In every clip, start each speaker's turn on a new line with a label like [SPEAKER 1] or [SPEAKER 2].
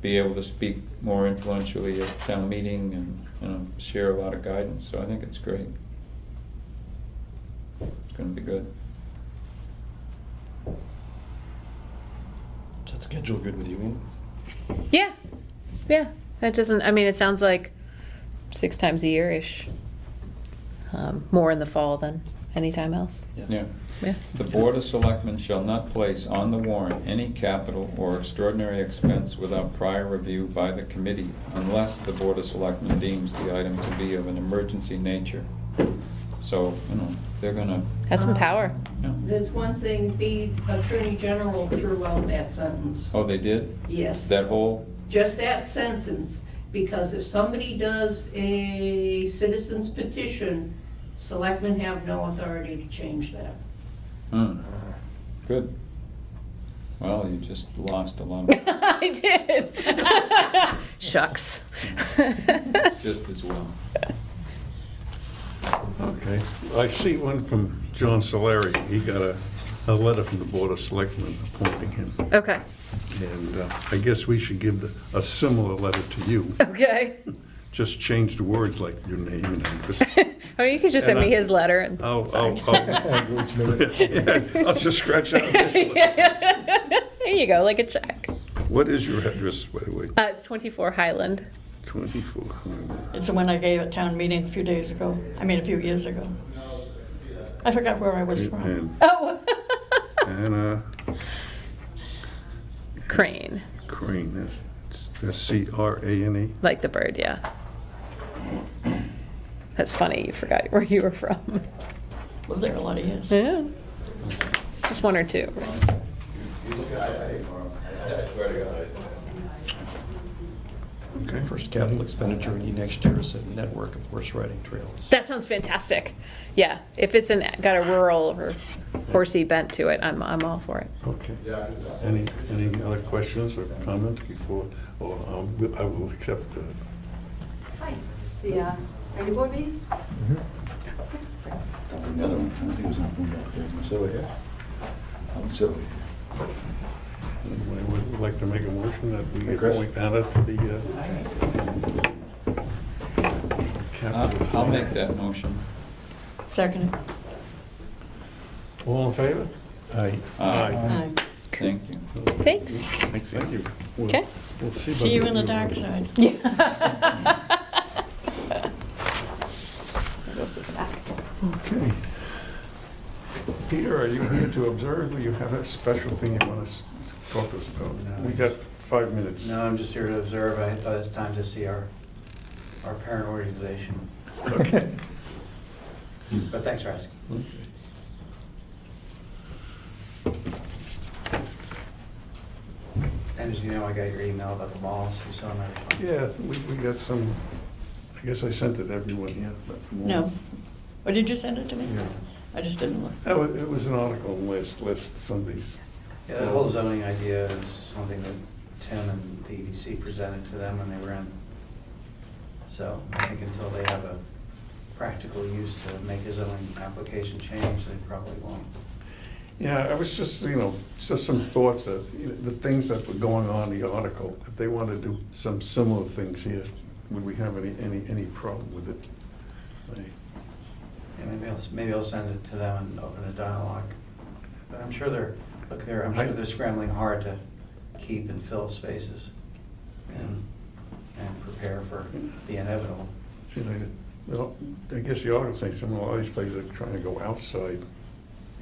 [SPEAKER 1] be able to speak more influentially at town meeting and, you know, share a lot of guidance, so I think it's great. It's gonna be good.
[SPEAKER 2] Is that schedule good with you, Ian?
[SPEAKER 3] Yeah, yeah. That doesn't. I mean, it sounds like six times a year ish. Um, more in the fall than any time else.
[SPEAKER 1] Yeah.
[SPEAKER 3] Yeah.
[SPEAKER 1] The Board of Selectmen shall not place on the warrant any capital or extraordinary expense without prior review by the committee unless the Board of Selectmen deems the item to be of an emergency nature. So, you know, they're gonna,
[SPEAKER 3] Has some power.
[SPEAKER 1] yeah.
[SPEAKER 4] There's one thing, the Attorney General threw out that sentence.
[SPEAKER 1] Oh, they did?
[SPEAKER 4] Yes,
[SPEAKER 1] That whole,
[SPEAKER 4] just that sentence, because if somebody does a citizen's petition, selectmen have no authority to change that.
[SPEAKER 1] hmm, good. Well, you just lost a lot of,
[SPEAKER 3] I did. Shucks.
[SPEAKER 1] it's just as well.
[SPEAKER 5] Okay, I see one from John Solari. He got a, a letter from the Board of Selectmen appointing him.
[SPEAKER 3] okay.
[SPEAKER 5] And uh, I guess we should give the- a similar letter to you,
[SPEAKER 3] Okay.
[SPEAKER 5] just change the words like your name and address.
[SPEAKER 3] Or you could just send
[SPEAKER 5] And
[SPEAKER 3] me
[SPEAKER 5] I- Oh,
[SPEAKER 3] his letter. And,
[SPEAKER 5] I'll,
[SPEAKER 3] sorry.
[SPEAKER 5] I'll, I'll, I'll just scratch out initially.
[SPEAKER 3] there you go, like a check.
[SPEAKER 5] What is your address, by the way?
[SPEAKER 3] Uh, it's 24 Highland.
[SPEAKER 5] 24.
[SPEAKER 6] It's the one I gave at town meeting a few days ago. I mean, a few years ago. I forgot where I was from.
[SPEAKER 5] And
[SPEAKER 3] Oh,
[SPEAKER 5] Anna
[SPEAKER 3] crane,
[SPEAKER 5] Crane, that's- that's C-R-A-N-E.
[SPEAKER 3] like the bird. Yeah. That's funny. You forgot where you were from.
[SPEAKER 6] Lived there a lot of years.
[SPEAKER 3] Yeah. Just one or two.
[SPEAKER 5] Okay.
[SPEAKER 2] First capital expenditure in the next year is a network of horse riding trails.
[SPEAKER 3] That sounds fantastic. Yeah, if it's an, got a rural or horsey bent to it, I'm, I'm all for it.
[SPEAKER 5] Okay. Any, any other questions or comments before, or um, I will accept the,
[SPEAKER 7] Hi, it's the uh, planning board meeting.
[SPEAKER 8] Another one, I think it was on one back there. Oh, Silver here? I'm Silver.
[SPEAKER 5] anybody would like to make a motion that we
[SPEAKER 8] Hey, Chris.
[SPEAKER 5] appoint Anna to the uh, capital.
[SPEAKER 1] Uh, I'll I'll make that motion.
[SPEAKER 6] Second.
[SPEAKER 5] All in favor? Aye.
[SPEAKER 1] Aye.
[SPEAKER 6] Aye.
[SPEAKER 1] Uh, Thank you.
[SPEAKER 3] Thanks.
[SPEAKER 5] Thank you. We'll-
[SPEAKER 3] Okay.
[SPEAKER 5] we'll see
[SPEAKER 6] See you
[SPEAKER 5] about
[SPEAKER 6] in the dark side.
[SPEAKER 5] Okay. Peter, are you here to observe, or you have a special thing you want to talk to us about?
[SPEAKER 9] No.
[SPEAKER 5] We got five minutes.
[SPEAKER 9] No, I'm just here to observe. I thought it's time to see our, our parent organization.
[SPEAKER 5] Okay.
[SPEAKER 9] But thanks for asking. And as you know, I got your email about the malls. You saw my response.
[SPEAKER 5] Yeah, we, we got some, I guess I sent it to everyone, yeah, but.
[SPEAKER 6] No. Or did you send it to me?
[SPEAKER 5] Yeah.
[SPEAKER 6] I just didn't look.
[SPEAKER 5] That was, it was an article on last, last Sunday's.
[SPEAKER 9] Yeah, the whole zoning idea is something that Tim and the EDC presented to them when they were in. So I think until they have a practical use to make a zoning application change, they probably won't.
[SPEAKER 5] Yeah, I was just, you know, just some thoughts of, you know, the things that were going on in the article. If they want to do some similar things here, would we have any, any, any problem with it? I-
[SPEAKER 9] Yeah, maybe I'll, maybe I'll send it to them and open a dialogue. But I'm sure they're, look, they're, I'm sure they're scrambling hard to keep and fill spaces and, and prepare for the inevitable.
[SPEAKER 5] Seems like, it- well, I guess the article says some of these places are trying to go outside,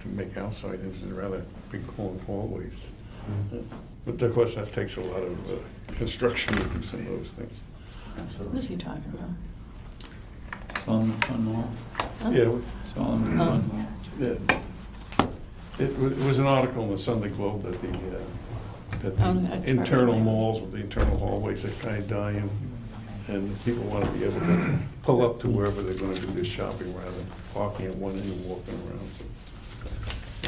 [SPEAKER 5] to make outside into rather big long hallways. Mm-hmm. But of course, that takes a lot of uh, construction to do some of those things.
[SPEAKER 6] What was he
[SPEAKER 9] Absolutely.
[SPEAKER 6] talking about?
[SPEAKER 1] Solomon Pond Mall,
[SPEAKER 6] Huh?
[SPEAKER 5] Yeah, w-
[SPEAKER 1] Solomon Pond Mall.
[SPEAKER 5] yeah. It wa- it was an article in the Sunday Globe that the, uh, that
[SPEAKER 6] Oh, that's
[SPEAKER 5] the
[SPEAKER 6] right.
[SPEAKER 5] internal malls with the internal hallways are kind of dying, and people want to be able to pull up to wherever they're going to do their shopping rather than parking at one end and walking around.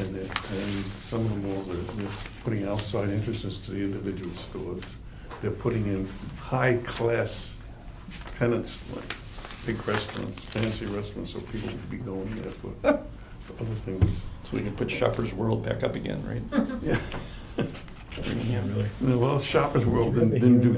[SPEAKER 5] And it- and some of the malls are they're putting outside entrances to the individual stores. They're putting in high-class tenants, like big restaurants, fancy restaurants, so people will be going there for for other things.
[SPEAKER 2] So we can put Shoppers World back up again, right?
[SPEAKER 5] Yeah.
[SPEAKER 2] Yeah, really.
[SPEAKER 5] Well, Shoppers World didn't didn't do